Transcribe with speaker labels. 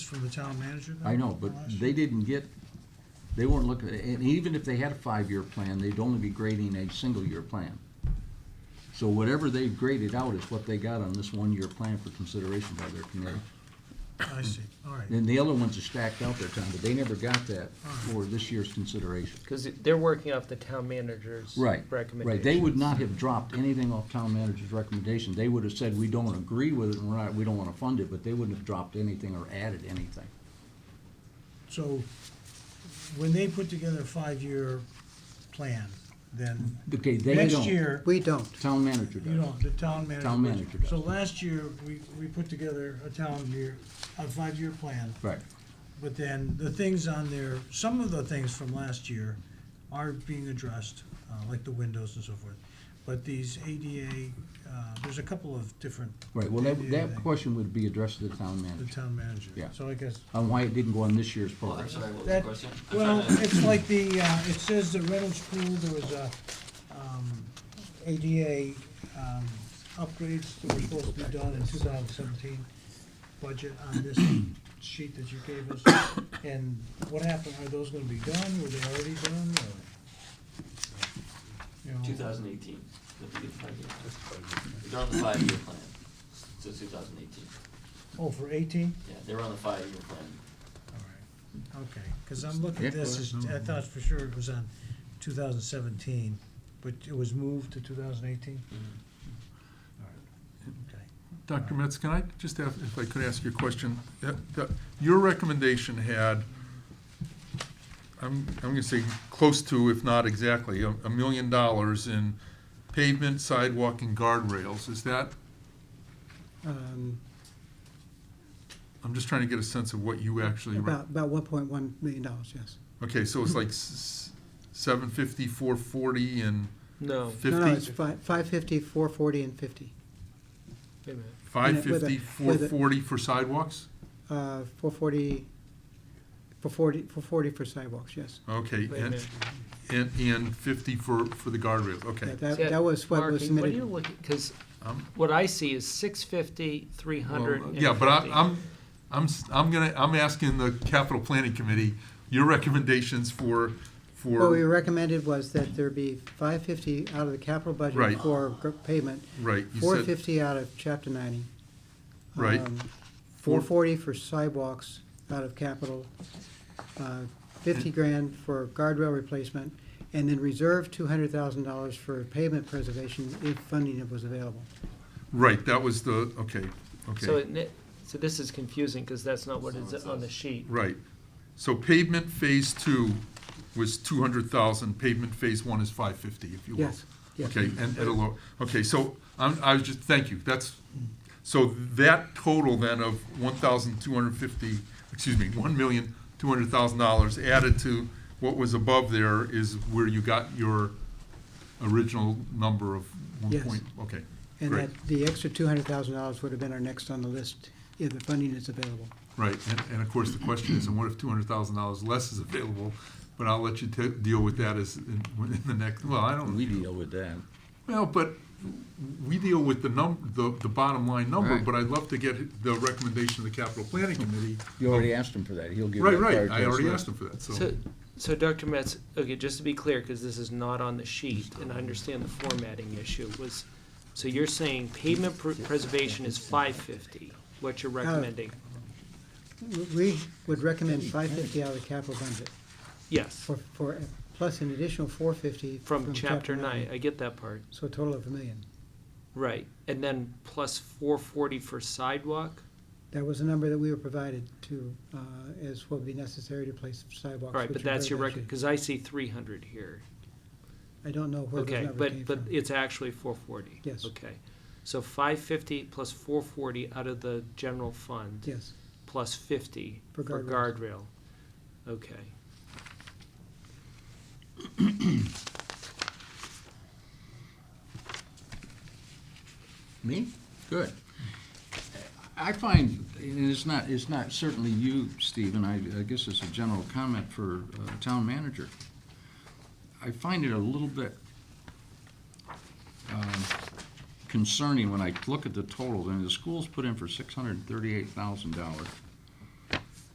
Speaker 1: from the town manager?
Speaker 2: I know, but they didn't get, they weren't looking, and even if they had a five-year plan, they'd only be grading a single-year plan. So whatever they've graded out is what they got on this one-year plan for consideration by their committee.
Speaker 1: I see, all right.
Speaker 2: Then the other ones are stacked out there, Tom, but they never got that for this year's consideration.
Speaker 3: Because they're working off the town manager's
Speaker 2: Right, right.
Speaker 3: recommendation.
Speaker 2: They would not have dropped anything off town manager's recommendation. They would have said, we don't agree with it, and we're not, we don't wanna fund it, but they wouldn't have dropped anything or added anything.
Speaker 1: So when they put together a five-year plan, then
Speaker 2: Okay, they don't.
Speaker 1: next year,
Speaker 4: We don't.
Speaker 2: Town manager does.
Speaker 1: you know, the town manager.
Speaker 2: Town manager does.
Speaker 1: So last year, we, we put together a town year, a five-year plan.
Speaker 2: Right,
Speaker 1: But then the things on there, some of the things from last year are being addressed, uh, like the windows and so forth. But these ADA, uh, there's a couple of different.
Speaker 2: right. Well, that,
Speaker 1: ADA
Speaker 2: that
Speaker 1: thing.
Speaker 2: question would be addressed to the town
Speaker 1: The
Speaker 2: manager
Speaker 1: town manager.
Speaker 2: Yeah.
Speaker 1: So I guess,
Speaker 2: on why it didn't go on this year's
Speaker 5: Well, I'm
Speaker 2: program.
Speaker 5: sorry, what was the
Speaker 1: That-
Speaker 5: question? I'm
Speaker 1: well,
Speaker 5: sorry, I-
Speaker 1: it's like the, uh, it says the Reynolds Pool, there was a, um, ADA, um, upgrades that were supposed to be done in two thousand seventeen budget on this sheet that you gave us. And what happened, are those gonna be done? Were they already done or? you know?
Speaker 5: 2018. Don't forget the five-year plan. They're on the five-year plan, so 2018.
Speaker 1: Oh, for eighteen?
Speaker 5: Yeah, they were on the five-year plan.
Speaker 1: All right, okay, because I'm looking at
Speaker 2: Yeah.
Speaker 1: this, as- I thought for sure it was on 2017, but it was moved to 2018? All right, okay.
Speaker 6: Dr. Metz, can I just have, if I could ask you a question? Uh, the- Your recommendation had, I'm, I'm gonna say close to, if not exactly, a, a million dollars in pavement, sidewalk, and guardrails. Is that,
Speaker 4: Um,
Speaker 6: I'm just trying to get a sense of what you actually. re-
Speaker 4: About, about one point one million dollars, yes.
Speaker 6: Okay, so it's like s- seven fifty, four forty, and
Speaker 3: No,
Speaker 4: No, no, it's
Speaker 6: fifty?
Speaker 4: five, five fifty, four forty, and fifty.
Speaker 3: wait a minute.
Speaker 6: Five
Speaker 4: with
Speaker 6: fifty,
Speaker 4: a-
Speaker 6: four forty for sidewalks?
Speaker 4: Uh, four forty, for forty, for forty for sidewalks, yes.
Speaker 6: Okay,
Speaker 3: Wait a
Speaker 6: and,
Speaker 3: minute.
Speaker 6: and, and fifty for, for the guardrails, okay.
Speaker 4: That, that- that was what was
Speaker 3: Marking, What are you
Speaker 4: submitted.
Speaker 3: looking, because
Speaker 6: Um,
Speaker 3: what I see is six fifty, three hundred
Speaker 6: Well,
Speaker 3: and fifty.
Speaker 6: Yeah, but I- I'm, I'm, s- I'm gonna, I'm asking the capital planning committee, your recommendations for,
Speaker 4: What we
Speaker 6: for,
Speaker 4: recommended was that there be five fifty out of the capital
Speaker 6: Right.
Speaker 4: budget for gr- pavement,
Speaker 6: right, you
Speaker 4: four
Speaker 6: said,
Speaker 4: fifty out of chapter ninety. Um,
Speaker 6: Right.
Speaker 4: Four
Speaker 6: Four-
Speaker 4: forty for sidewalks out of capital, uh, fifty grand for guardrail replacement, and then reserve two hundred thousand dollars for pavement preservation if funding was available.
Speaker 6: right, that was the, okay,
Speaker 3: So
Speaker 6: okay,
Speaker 3: it, ne- so this is confusing, because that's not what is on the sheet.
Speaker 6: right. So pavement phase two was two hundred thousand, pavement phase one is five fifty, if you will.
Speaker 4: Yes, yes.
Speaker 6: Okay, and at a low, okay, so I'm, I was just, thank you, that's, so that total then of one thousand two hundred fifty, excuse me, one million two hundred thousand dollars added to what was above there is where you got your original number of one
Speaker 4: Yes.
Speaker 6: point, okay.
Speaker 4: And
Speaker 6: great.
Speaker 4: that, the extra two hundred thousand dollars would have been our next on the list if the funding is available.
Speaker 6: Right, and, and of course, the question is, and what if two hundred thousand dollars less is available? But I'll let you ta- deal with that as, in, in the next, well, I don't.
Speaker 2: We deal with that.
Speaker 6: Well, but we deal with the num, the, the bottom line number,
Speaker 2: Right.
Speaker 6: but I'd love to get the recommendation of the capital planning committee.
Speaker 2: You already asked him for that. He'll give you
Speaker 6: Right,
Speaker 2: that card.
Speaker 6: right, I
Speaker 2: to us
Speaker 6: already
Speaker 2: later.
Speaker 6: asked him for that, so,
Speaker 3: So, so Dr. Metz, okay, just to be clear, because this is not on the sheet, and I understand the formatting issue, was, so you're saying pavement pr- preservation is five fifty, what you're recommending?
Speaker 4: We- We would recommend five fifty out of the capital budget
Speaker 3: Yes,
Speaker 4: for, for, plus an additional four fifty.
Speaker 3: from chapter nine, I get that part,
Speaker 4: So a total of a million.
Speaker 3: right. And then plus four forty for sidewalk?
Speaker 4: That was a number that we were provided to, uh, as what would be necessary to place sidewalks.
Speaker 3: All right,
Speaker 4: which
Speaker 3: but
Speaker 4: are
Speaker 3: that's your
Speaker 4: very
Speaker 3: record,
Speaker 4: patchy.
Speaker 3: because I see three hundred here.
Speaker 4: I don't know where those
Speaker 3: Okay,
Speaker 4: number came
Speaker 3: but, but
Speaker 4: from.
Speaker 3: it's actually four forty?
Speaker 4: Yes.
Speaker 3: Okay. So five fifty plus four forty out of the general fund?
Speaker 4: Yes,
Speaker 3: plus fifty for
Speaker 4: For
Speaker 3: guardrail.
Speaker 4: guardrails.
Speaker 3: Okay.
Speaker 2: Me? Good. I find, and it's not, it's not certainly you, Stephen, I, I guess it's a general comment for uh, town manager. I find it a little bit um, concerning when I look at the totals, and the schools put in for six hundred and thirty-eight thousand dollars.